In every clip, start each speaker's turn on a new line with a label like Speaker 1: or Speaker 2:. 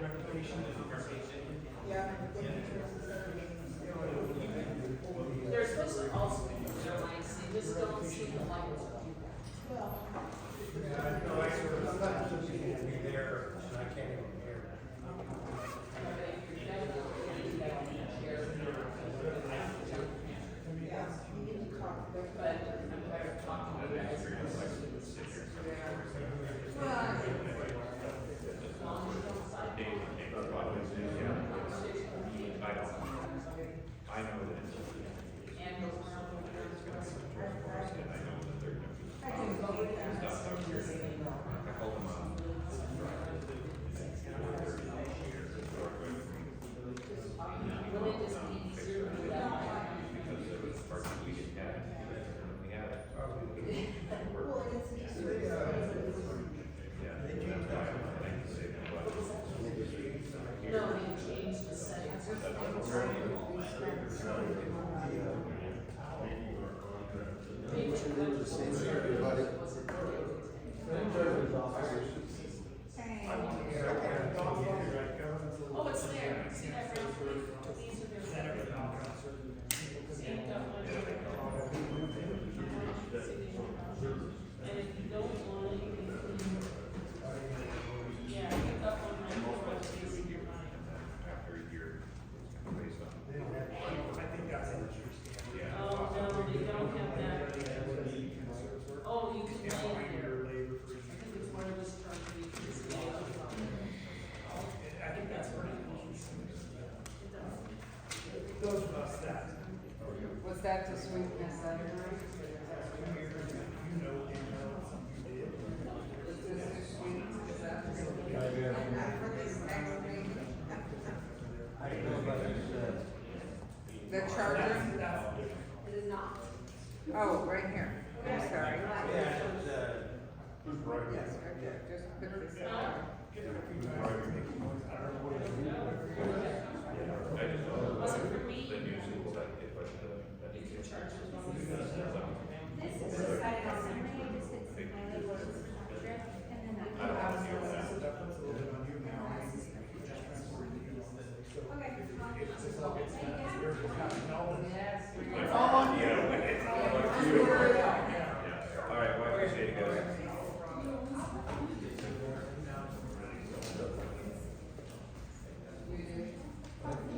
Speaker 1: verification.
Speaker 2: Yeah, I think insurance is everything.
Speaker 3: They're supposed to also be their lights, they just don't see the lights.
Speaker 2: Well,
Speaker 4: Yeah, no, I sort of, sometimes it's easy to be there, and I can't even hear.
Speaker 2: yeah, you need to talk to them.
Speaker 3: But I'm tired of talking to you guys.
Speaker 2: Well,
Speaker 3: As long as you don't side-
Speaker 5: I know that it's,
Speaker 3: and those one of the ones who are-
Speaker 5: I know that they're gonna be,
Speaker 2: I can go with that.
Speaker 5: I called them up.
Speaker 3: Will it just be easier to do that?
Speaker 5: Because it was part of, we didn't have, it, and we had it.
Speaker 2: Well, and it's easier to
Speaker 5: Yeah. I can say that, but
Speaker 3: No, they changed the settings. They took them to It wasn't really-
Speaker 2: say.
Speaker 3: Oh, it's there, see that brown leaf, these are their. See, that one. And if you don't want it, you can clean. Yeah, pick up on my floor, please, in your mind.
Speaker 5: after a year, it's kind of based on. Yeah.
Speaker 3: Oh, no, they don't have that. Oh, you can lay it there. I think it's one of those terms we can see.
Speaker 1: I think that's pretty Those of us that,
Speaker 6: Was that to sweetness that room?
Speaker 1: you know, they know, you did.
Speaker 6: Is this to sweetness that room? The charger?
Speaker 1: That's different.
Speaker 2: It is not.
Speaker 6: Oh, right here. I'm sorry.
Speaker 4: Yeah, it's, uh,
Speaker 6: Yes, right there. Just put this down.
Speaker 5: I just know
Speaker 3: Was it for me?
Speaker 5: the new school that it was the, that
Speaker 3: You
Speaker 5: it
Speaker 3: can
Speaker 5: was.
Speaker 3: charge it one of those.
Speaker 7: This is just I on Sunday, I just did some highlight work with the contract, and then I. Okay.
Speaker 6: Yes.
Speaker 5: It's all on you. It's all on you. Yeah. All right, well, I appreciate it, guys.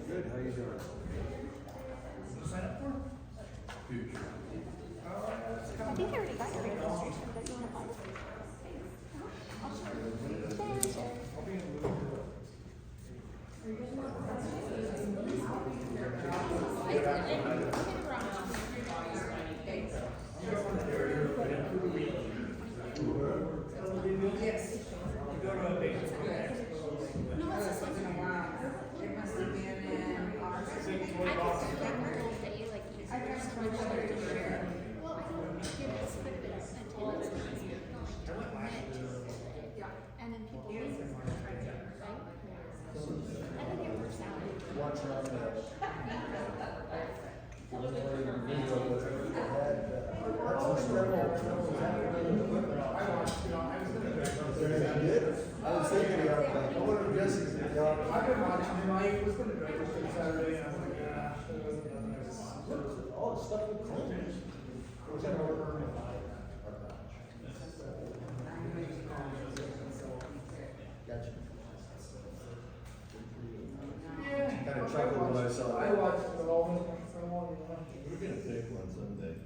Speaker 4: Good, how you doing?
Speaker 7: I think I already got your registration, but you want to call? I'll share. Share, share. I did, I did it wrong.
Speaker 6: Yes. Good.
Speaker 7: No, what's this one?
Speaker 6: Wow. It must have been in August.
Speaker 7: I think like rules that you like use.
Speaker 6: I got so much to share.
Speaker 7: Well, I don't give this quite a bit of sentence. It's not like documented. And then people read it, right? I think it works out.
Speaker 8: Watch out for that. There was a video that had, uh, that's a struggle. I watched it on. There you did? I was thinking about that. I wonder if Jesse's in the audience.
Speaker 1: I've been watching him, I was gonna drive this on Saturday, and I was like, ah, there wasn't another.
Speaker 8: All the stuff with Clinton. Which I don't remember. Gotcha. Kind of chuckled when I saw that.
Speaker 1: I watched it all, I wanted one.
Speaker 8: We're gonna pick one someday.